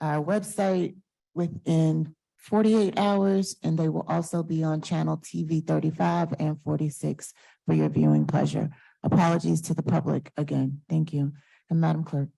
our website within forty-eight hours, and they will also be on channel TV thirty-five and forty-six for your viewing pleasure. Apologies to the public again. Thank you. And Madam Clerk.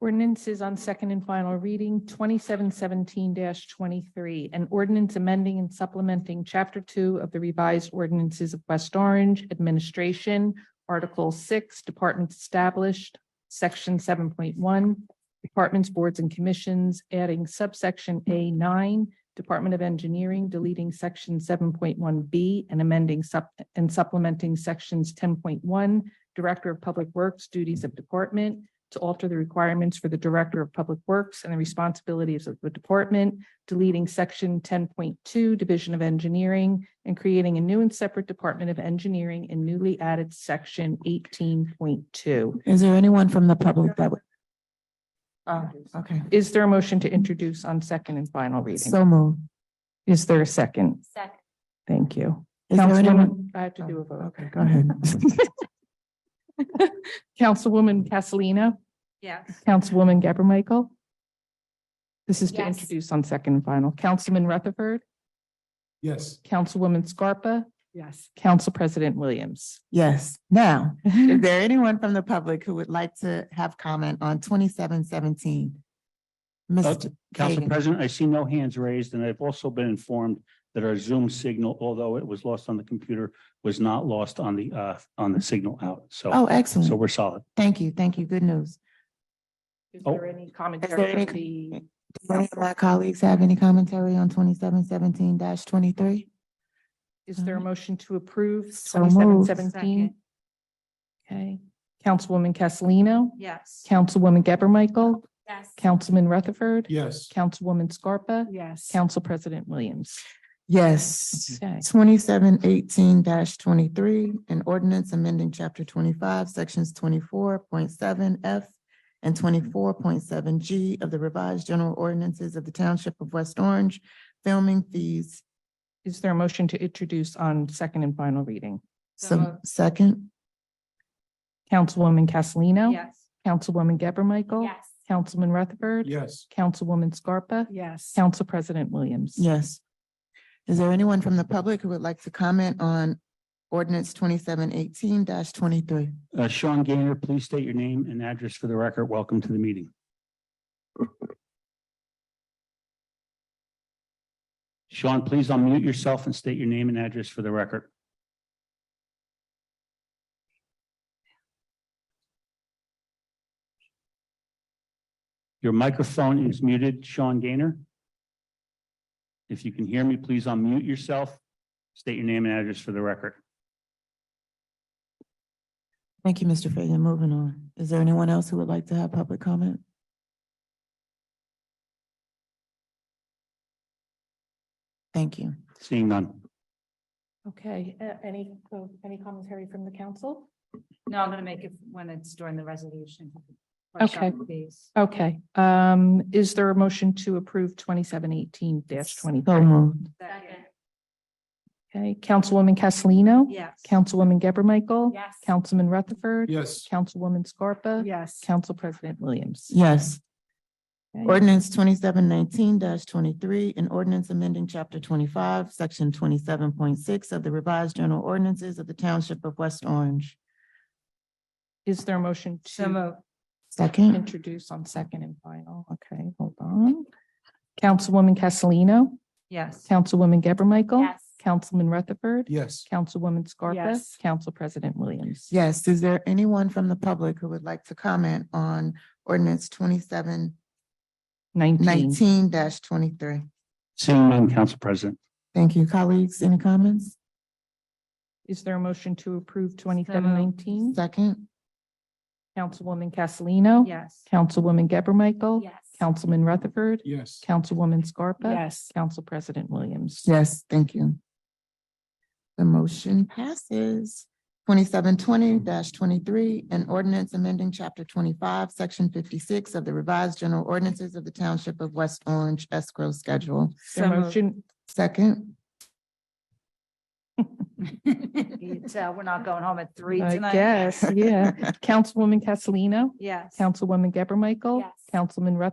Ordinances on second and final reading, twenty-seven seventeen twenty-three, an ordinance amending and supplementing chapter two of the revised ordinances of West Orange Administration, Article six, Departments Established, Section seven point one, Departments, Boards and Commissions, adding subsection A nine, Department of Engineering, deleting section seven point one B and amending sup- and supplementing sections ten point one, Director of Public Works, duties of department, to alter the requirements for the Director of Public Works and the responsibilities of the department, deleting section ten point two, Division of Engineering, and creating a new and separate Department of Engineering and newly added section eighteen point two. Is there anyone from the public that would? Okay, Uh, Is there a motion to introduce on second and final reading? so moved. Is there a second? Second. Thank you. Is there anyone? Councilwoman- I have to do a vote. Okay, go ahead. Councilwoman Castellino, Yes. Councilwoman Gabor Michael. This is to Yes. introduce on second and final. Councilman Rutherford. Yes. Councilwoman Scarpa, Yes. Council President Williams. Yes, now, is there anyone from the public who would like to have comment on twenty-seven seventeen? Mr. Oh, Council Kagan. President, I see no hands raised, and I've also been informed that our Zoom signal, although it was lost on the computer, was not lost on the, uh, on the signal out. So, Oh, so excellent. we're solid. Thank you, thank you. Good news. Is Oh. there any Is there commentary any- on the, Do any of my colleagues have any commentary on twenty-seven seventeen twenty-three? is there a motion to approve So twenty-seven moved. seventeen? Okay, Councilwoman Castellino, Yes. Councilwoman Geber Michael, Yes. Councilman Rutherford. Yes. Councilwoman Scarpa, Yes. Council President Williams. Yes, Okay. twenty-seven eighteen twenty-three, an ordinance amending chapter twenty-five, sections twenty-four point seven F and twenty-four point seven G of the revised general ordinances of the Township of West Orange, filming fees. Is there a motion to introduce on second and final reading? So So, moved. second, Councilwoman Castellino. Yes. Councilwoman Geber Michael. Yes. Councilman Rutherford. Yes. Councilwoman Scarpa, Yes. Council President Williams. yes. Is there anyone from the public who would like to comment on ordinance twenty-seven eighteen twenty-three? Uh, Sean Gaynor, please state your name and address for the record. Welcome to the meeting. Sean, please unmute yourself and state your name and address for the record. Your microphone is muted, Sean Gaynor. If you can hear me, please unmute yourself, state your name and address for the record. Thank you, Mr. Fagan. Moving on. Is there anyone else who would like to have public comment? Thank you. Seeing none. Okay, uh, any, uh, any commentary from the council? No, I'm gonna make it when it's during the resolution. Okay. Please. Okay, um, is there a motion to approve twenty-seven eighteen twenty? So moved. Second. Okay, Councilwoman Castellino. Yes. Councilwoman Geber Michael. Yes. Councilman Rutherford. Yes. Councilwoman Scarpa. Yes. Council President Williams. Yes. Okay. Ordinance twenty-seven nineteen twenty-three, an ordinance amending chapter twenty-five, section twenty-seven point six of the revised general ordinances of the Township of West Orange. Is there a motion So to moved. Second, introduce on second and final? Okay, hold on. Councilwoman Castellino. Yes. Councilwoman Geber Michael. Yes. Councilman Rutherford. Yes. Councilwoman Scarpa. Yes. Council President Williams. yes, is there anyone from the public who would like to comment on ordinance twenty-seven Nineteen. nineteen twenty-three? Seeing none, Council President. Thank you. Colleagues, any comments? Is there a motion to approve twenty-seven nineteen? Second, Councilwoman Castellino. Yes. Councilwoman Geber Michael. Yes. Councilman Rutherford. Yes. Councilwoman Scarpa. Yes. Council President Williams. yes, thank you. The motion passes. Twenty-seven twenty twenty-three, an ordinance amending chapter twenty-five, section fifty-six of the revised general ordinances of the township of West Orange escrow schedule. Is there a motion, Second, You tell, we're not going home at three I tonight. guess, yeah. Councilwoman Castellino. Yes. Councilwoman Geber Michael. Yes. Councilman Rutherford.